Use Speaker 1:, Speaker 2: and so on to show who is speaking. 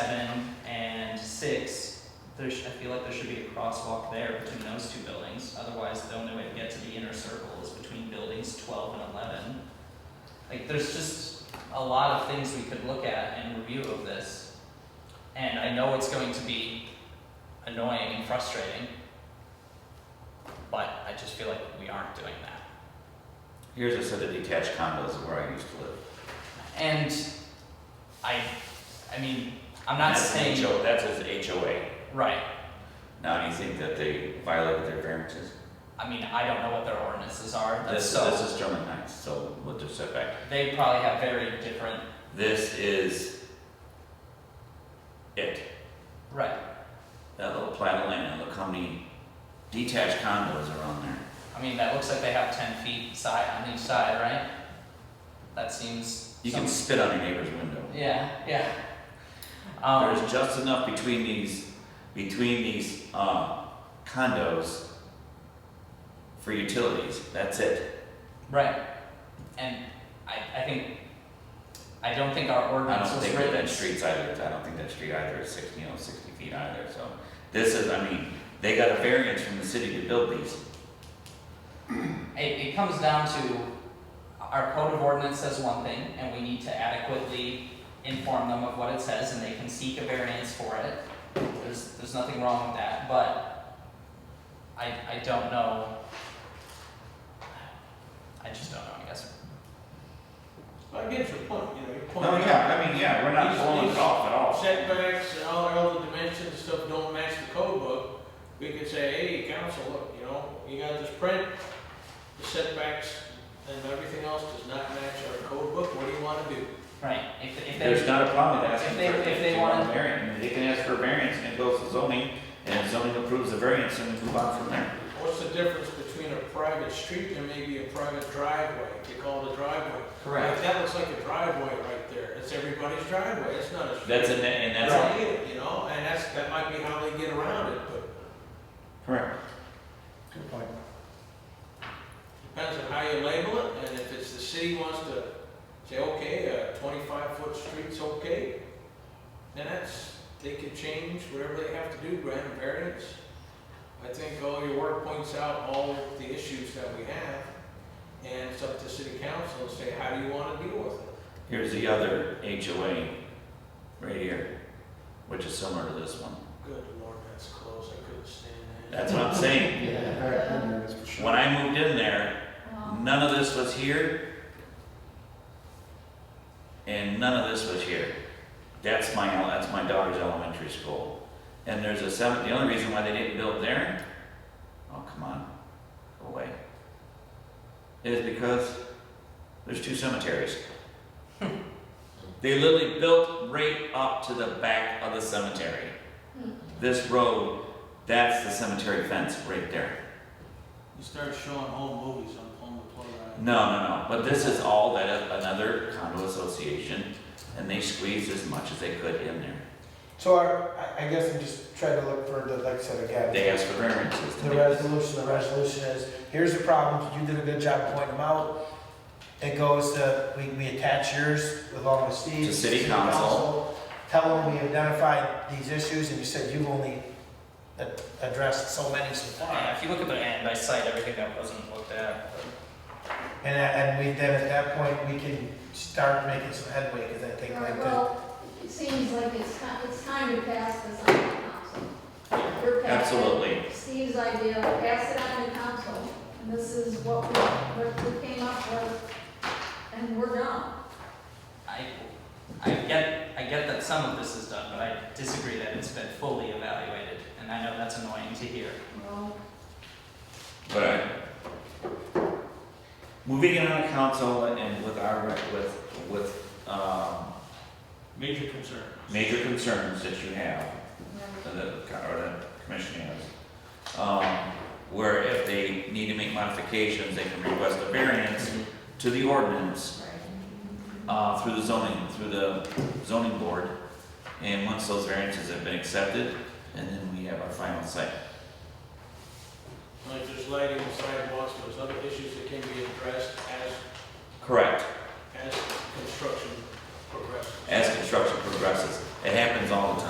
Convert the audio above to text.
Speaker 1: seven and six, there's, I feel like there should be a crosswalk there between those two buildings. Otherwise, the only way to get to the inner circle is between buildings twelve and eleven. Like, there's just a lot of things we could look at and review of this. And I know it's going to be annoying and frustrating, but I just feel like we aren't doing that.
Speaker 2: Here's a set of detached condos where I used to live.
Speaker 1: And I, I mean, I'm not
Speaker 2: That's an
Speaker 1: saying,
Speaker 2: HO That's his HOA.
Speaker 1: right,
Speaker 2: Now, do you think that they violated their variances?
Speaker 1: I mean, I don't know what their ordinances are,
Speaker 2: This,
Speaker 1: so
Speaker 2: this is German Heights, so with their setback.
Speaker 1: they probably have very different.
Speaker 2: This is it.
Speaker 1: Right.
Speaker 2: That little plat of land, look how many detached condos are on there.
Speaker 1: I mean, that looks like they have ten feet side on each side, right? That seems.
Speaker 2: You can
Speaker 1: some-
Speaker 2: spit on your neighbor's window.
Speaker 1: Yeah, yeah. Um,
Speaker 2: There's just enough between these, between these, uh, condos for utilities. That's it.
Speaker 1: right. And I, I think, I don't think our
Speaker 2: I
Speaker 1: ordinance
Speaker 2: don't
Speaker 1: was
Speaker 2: think that
Speaker 1: written.
Speaker 2: that street's either, I don't think that street either is sixty, you know, sixty feet either, so. This is, I mean, they got a variance from the city to build these.
Speaker 1: It, it comes down to, our code of ordinance says one thing, and we need to adequately inform them of what it says, and they can seek a variance for it. There's, there's nothing wrong with that, but I, I don't know. I just don't know, I guess.
Speaker 3: I get your point, you know, your point.
Speaker 2: No, Oh, yeah, I mean, yeah, we're not
Speaker 3: These-
Speaker 2: blowing it
Speaker 3: these-
Speaker 2: off at all.
Speaker 3: Setbacks and all, all the dimensions and stuff don't match the code book. We could say, hey, council, look, you know, you got this print, the setbacks and everything else does not match our code book, what do you wanna do?
Speaker 1: Right, if, if they,
Speaker 2: There's not a problem with asking
Speaker 1: If they-
Speaker 2: for,
Speaker 1: if
Speaker 2: if
Speaker 1: they
Speaker 2: they want a
Speaker 1: wanted-
Speaker 2: variance, they can ask for a variance and it goes to zoning, and if zoning approves the variance, then we move on from there.
Speaker 3: What's the difference between a private street and maybe a private driveway, they call it a driveway? Like, That looks like a driveway right there, it's everybody's driveway, it's not a street.
Speaker 2: That's, a- and that's,
Speaker 1: Right.
Speaker 3: It's needed, You know, and that's, that might be how they get around it, but
Speaker 2: correct.
Speaker 4: Good point.
Speaker 3: Depends on how you label it, and if it's the city wants to say, okay, a twenty-five foot street's okay, then that's, they can change whatever they have to do, grant a variance. I think all your work points out all of the issues that we have, and it's up to city council to say, how do you wanna deal with it?
Speaker 2: Here's the other HOA, right here, which is similar to this one.
Speaker 3: Good lord, that's close, I couldn't stand that.
Speaker 2: That's what I'm saying.
Speaker 4: Yeah, the back window is for sure.
Speaker 2: When I moved in there, none of this was here. And none of this was here. That's my, ele- that's my daughter's elementary school. And there's a seven, the only reason why they didn't build there, oh, come on, go away. Is because there's two cemeteries. They literally built right up to the back of the cemetery. This road, that's the cemetery fence right there.
Speaker 3: You start showing home movies, I'm pulling the plug out.
Speaker 2: No, no, no, but this is all that a- another condo association, and they squeezed as much as they could in there.
Speaker 4: So our, I- I guess I'm just trying to look for the, like I said again.
Speaker 2: They asked for variances to
Speaker 4: The
Speaker 2: make.
Speaker 4: resolution, the resolution is, here's the problems, you did a good job pointing them out. It goes to, we, we attach yours along with Steve's.
Speaker 2: To city council.
Speaker 4: Tell them we identified these issues and you said you've only a- addressed so many so
Speaker 1: yeah,
Speaker 4: far.
Speaker 1: if you look at the end, I cite everything that wasn't looked at.
Speaker 4: And, that- and we, then at that point, we can start making some headway, cause I think like the,
Speaker 5: Well, it seems like it's time, it's time to pass this on to council. We're passing
Speaker 2: Absolutely.
Speaker 5: Steve's idea, pass it on to council, and this is what we, what we came up with, and we're done.
Speaker 1: I, I get, I get that some of this is done, but I disagree that it's been fully evaluated, and I know that's annoying to hear.
Speaker 5: Well,
Speaker 2: But I- moving in on council and with our, rec- with, with, um,
Speaker 3: Major concern.
Speaker 2: major concerns that you have,
Speaker 5: yeah.
Speaker 2: that the, or the commission has, um, where if they need to make modifications, they can request a variance to the ordinance, uh, through the zoning, through the zoning board. And once those variances have been accepted, and then we have our final site.
Speaker 3: Like there's lighting, sidewalks, there's other issues that can be addressed as
Speaker 2: Correct.
Speaker 3: as construction progresses.
Speaker 2: As construction progresses. It happens all the time.